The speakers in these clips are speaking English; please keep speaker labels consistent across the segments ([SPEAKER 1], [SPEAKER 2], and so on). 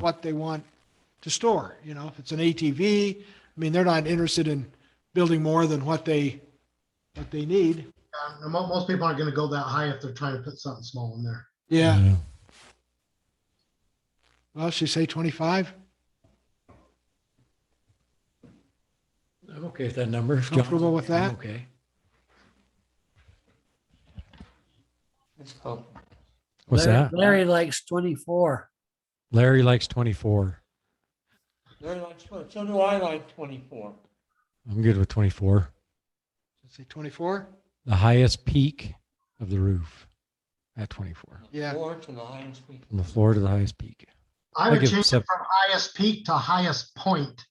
[SPEAKER 1] what they want to store, you know, if it's an ATV, I mean, they're not interested in building more than what they, what they need.
[SPEAKER 2] Um, and mo- most people aren't going to go that high if they're trying to put something small in there.
[SPEAKER 1] Yeah, well, should we say 25?
[SPEAKER 3] I'm okay with that number. If John-
[SPEAKER 1] Comfortable with
[SPEAKER 3] I'm
[SPEAKER 1] that?
[SPEAKER 3] Okay.
[SPEAKER 4] What's
[SPEAKER 3] Larry-
[SPEAKER 4] that?
[SPEAKER 3] Larry likes twenty-four.
[SPEAKER 4] Larry likes 24.
[SPEAKER 5] Very like, twen- so do I like twenty-four.
[SPEAKER 4] I'm good with 24.
[SPEAKER 1] Let's Say 24?
[SPEAKER 4] The highest peak of the roof at 24.
[SPEAKER 1] Yeah.
[SPEAKER 5] Four to the highest we.
[SPEAKER 4] From the floor to the highest peak.
[SPEAKER 2] I
[SPEAKER 4] I
[SPEAKER 2] would
[SPEAKER 4] give
[SPEAKER 2] change it
[SPEAKER 4] sep-
[SPEAKER 2] from highest peak to highest point.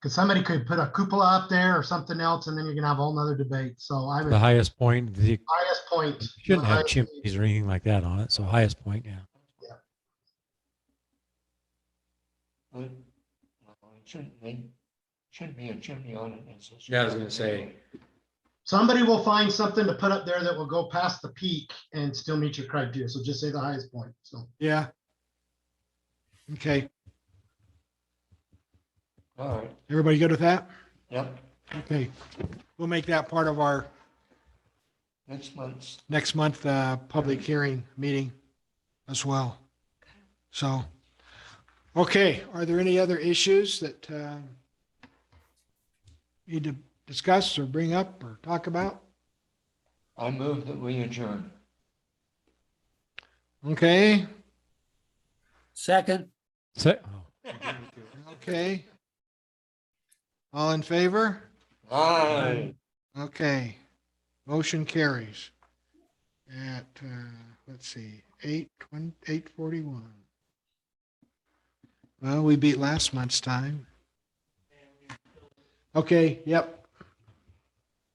[SPEAKER 2] Because somebody could put a cupola up there or something else, and then you're going to have a whole nother debate. So I would
[SPEAKER 4] The highest point, the,
[SPEAKER 2] highest point.
[SPEAKER 4] shouldn't have
[SPEAKER 2] highest peak.
[SPEAKER 4] chimneys or anything like that on it. So highest point, yeah.
[SPEAKER 5] Well, It shouldn't be, should be a chimney on it. It's a-
[SPEAKER 3] Yeah, I was gonna say.
[SPEAKER 2] Somebody will find something to put up there that will go past the peak and still meet your criteria. So just say the highest point. So
[SPEAKER 1] Yeah. Okay,
[SPEAKER 5] All right,
[SPEAKER 1] everybody good with that?
[SPEAKER 5] yep,
[SPEAKER 1] Okay, we'll make that part of our
[SPEAKER 5] next month's,
[SPEAKER 1] next month, uh, public hearing meeting as well. So, okay, are there any other issues that, uh, need to discuss or bring up or talk about?
[SPEAKER 5] I move that we adjourn.
[SPEAKER 1] Okay,
[SPEAKER 3] Second,
[SPEAKER 4] So, oh,
[SPEAKER 1] okay. All in favor?
[SPEAKER 5] Aye.
[SPEAKER 1] Okay, motion carries at, uh, let's see, eight, twen- eight forty-one. Well, we beat last month's time. Okay, yep,